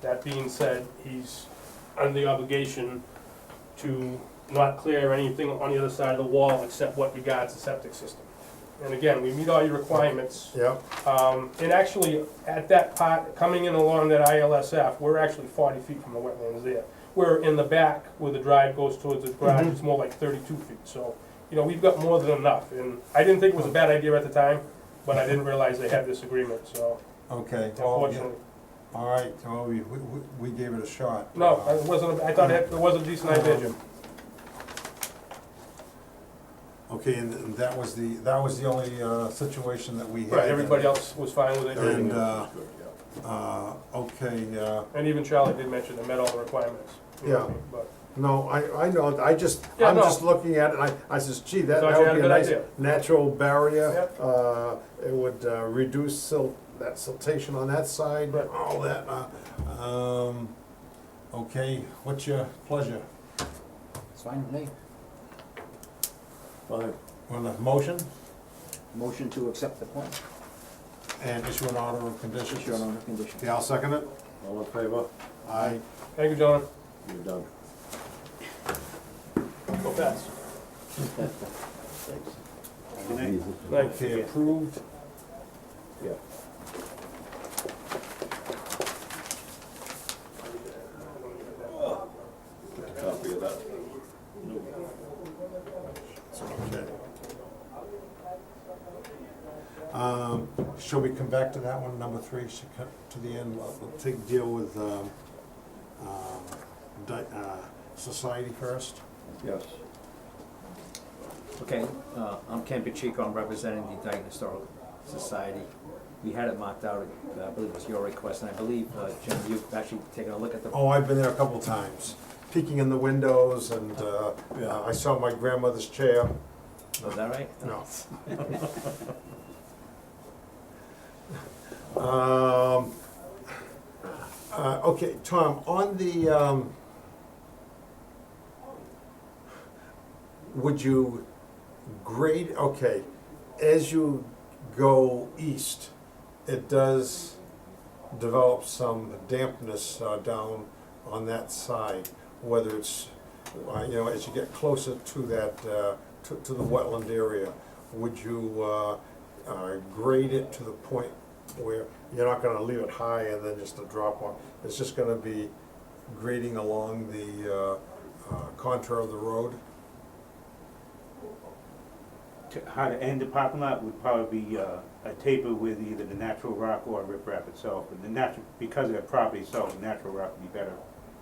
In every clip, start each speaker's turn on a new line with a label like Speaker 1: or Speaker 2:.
Speaker 1: That being said, he's under the obligation to not clear anything on the other side of the wall except what regards the septic system. And again, we meet all your requirements.
Speaker 2: Yep,
Speaker 1: Um, and actually, at that part, coming in along that ILSF, we're actually forty feet from the wetlands there. We're in the back where the drive goes towards the garage, it's more like thirty-two feet, so, you know, we've got more than enough, and I didn't think it was a bad idea at the time, but I didn't realize they had this agreement, so,
Speaker 2: okay, well, yeah,
Speaker 1: unfortunately.
Speaker 2: all right, well, we, we, we gave it a shot.
Speaker 1: No,
Speaker 2: Uh,
Speaker 1: it wasn't, I thought it it was a decent idea, Jim.
Speaker 2: Okay, and th- that was the, that was the only, uh, situation that we had.
Speaker 1: Right, everybody else was fine with
Speaker 2: And,
Speaker 1: it,
Speaker 2: uh, uh, okay, uh,
Speaker 1: and even Charlie did mention they met all the requirements. you know what I
Speaker 3: Yeah.
Speaker 1: mean, But,
Speaker 3: No, I, I know, I just,
Speaker 1: Yeah,
Speaker 3: I'm
Speaker 1: no.
Speaker 3: just looking at it, I, I says, gee, that,
Speaker 1: Thought
Speaker 3: that
Speaker 1: you
Speaker 3: would
Speaker 1: had a
Speaker 3: be a
Speaker 1: good
Speaker 3: nice
Speaker 1: idea.
Speaker 3: natural barrier.
Speaker 1: Yep.
Speaker 3: Uh, it would uh, reduce silt, that siltation on that side,
Speaker 1: Right.
Speaker 3: all that, uh,
Speaker 2: um, okay, what's your pleasure?
Speaker 4: It's fine with me.
Speaker 3: fine.
Speaker 2: On the motion
Speaker 4: Motion to accept the plan,
Speaker 2: and issue an order of
Speaker 4: just your
Speaker 2: conditions?
Speaker 4: own condition.
Speaker 2: Yeah, I'll second it.
Speaker 3: All in favor?
Speaker 2: Aye.
Speaker 1: Thank you, gentlemen.
Speaker 3: You're done.
Speaker 1: Go fast. Thanks.
Speaker 2: Okay, approved.
Speaker 3: Yeah. Copy of that.
Speaker 2: Okay. Um, shall we come back to that one, number three, should cut to the end, we'll we'll take, deal with, um, um, di- uh, society first?
Speaker 3: Yes.
Speaker 5: Okay, uh, I'm Ken Pacheco, I'm representing the Dayton Historical Society. We had it marked out, uh, I believe it was your request, and I believe, uh, Jim, you've actually taken a look at the,
Speaker 2: Oh, I've been there a couple times, peeking in the windows and, uh, uh, I saw my grandmother's chair,
Speaker 5: was that right?
Speaker 2: no.
Speaker 3: Um,
Speaker 2: Uh, okay, Tom, on the, um, would you grade, okay, as you go east, it does develop some dampness uh, down on that side, whether it's, uh, you know, as you get closer to that, uh, to, to the wetland area, would you, uh, uh, grade it to the point where you're not gonna leave it high and then just a drop off? It's just gonna be grading along the, uh, uh, contour of the road?
Speaker 6: to- how to end the parking lot would probably be uh, a taper with either the natural rock or riprap itself. But the natural, because of the property itself, the natural rock would be better,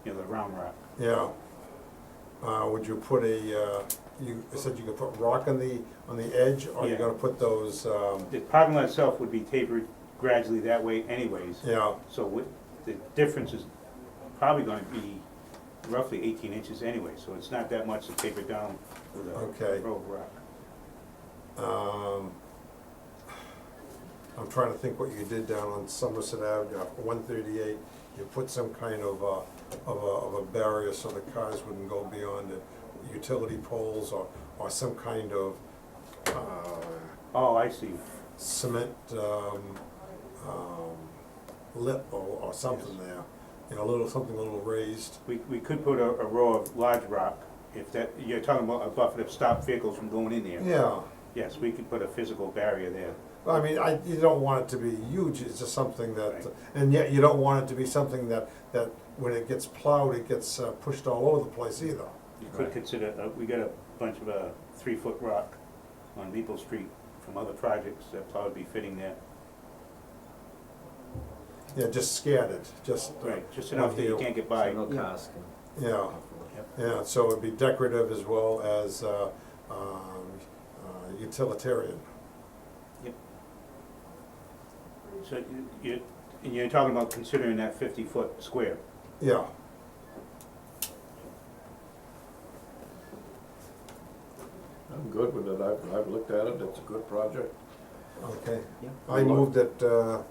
Speaker 6: you know, the round rock.
Speaker 2: Yeah. Uh, would you put a, uh, you said you could put rock on the, on the edge, or you're
Speaker 6: Yeah.
Speaker 2: gonna put those, um,
Speaker 6: The parking lot itself would be tapered gradually that way anyways.
Speaker 2: yeah,
Speaker 6: So what, the difference is probably gonna be roughly eighteen inches anyway, so it's not that much to taper down with
Speaker 2: Okay.
Speaker 6: a road rock.
Speaker 2: um, I'm trying to think what you did down on Somerset Avenue, one thirty-eight, you put some kind of a, of a, of a barrier so the cars wouldn't go beyond it, utility poles or, or some kind of, uh,
Speaker 6: Oh, I see.
Speaker 2: cement um, um, lip or, or something there, you know, a little, something a little raised.
Speaker 6: We, we could put a, a row of large rock, if that, you're talking about a buffer to stop vehicles from going in there.
Speaker 2: Yeah,
Speaker 6: Yes, we could put a physical barrier there.
Speaker 2: I mean, I, you don't want it to be huge, it's just something that, and yet you don't want it to be something that, that when it gets plowed, it gets uh, pushed all over the place either.
Speaker 6: You could consider, uh, we got a bunch of, uh, three-foot rock on Maple Street from other projects that probably be fitting there.
Speaker 2: Yeah, just scattered, just, uh,
Speaker 6: Right, just enough that you can't get by.
Speaker 5: So no cars can.
Speaker 2: yeah, yeah, so it'd be decorative as well as uh, um, uh, utilitarian.
Speaker 6: So you- you, and you're talking about considering that fifty-foot square.
Speaker 2: Yeah.
Speaker 3: I'm good with it, I've, I've looked at it, it's a good project.
Speaker 2: Okay.
Speaker 4: Yeah.
Speaker 2: I move that uh,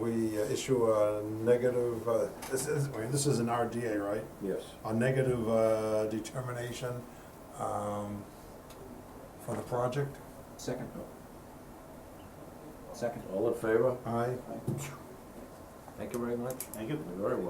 Speaker 2: we issue a negative, uh, this is, wait, this is an RDA, right?
Speaker 3: Yes.
Speaker 2: A negative uh, determination um, for the project?
Speaker 4: Second. Second.
Speaker 3: All in favor?
Speaker 2: Aye.
Speaker 5: Thank you very much.
Speaker 6: Thank you.
Speaker 3: Very well.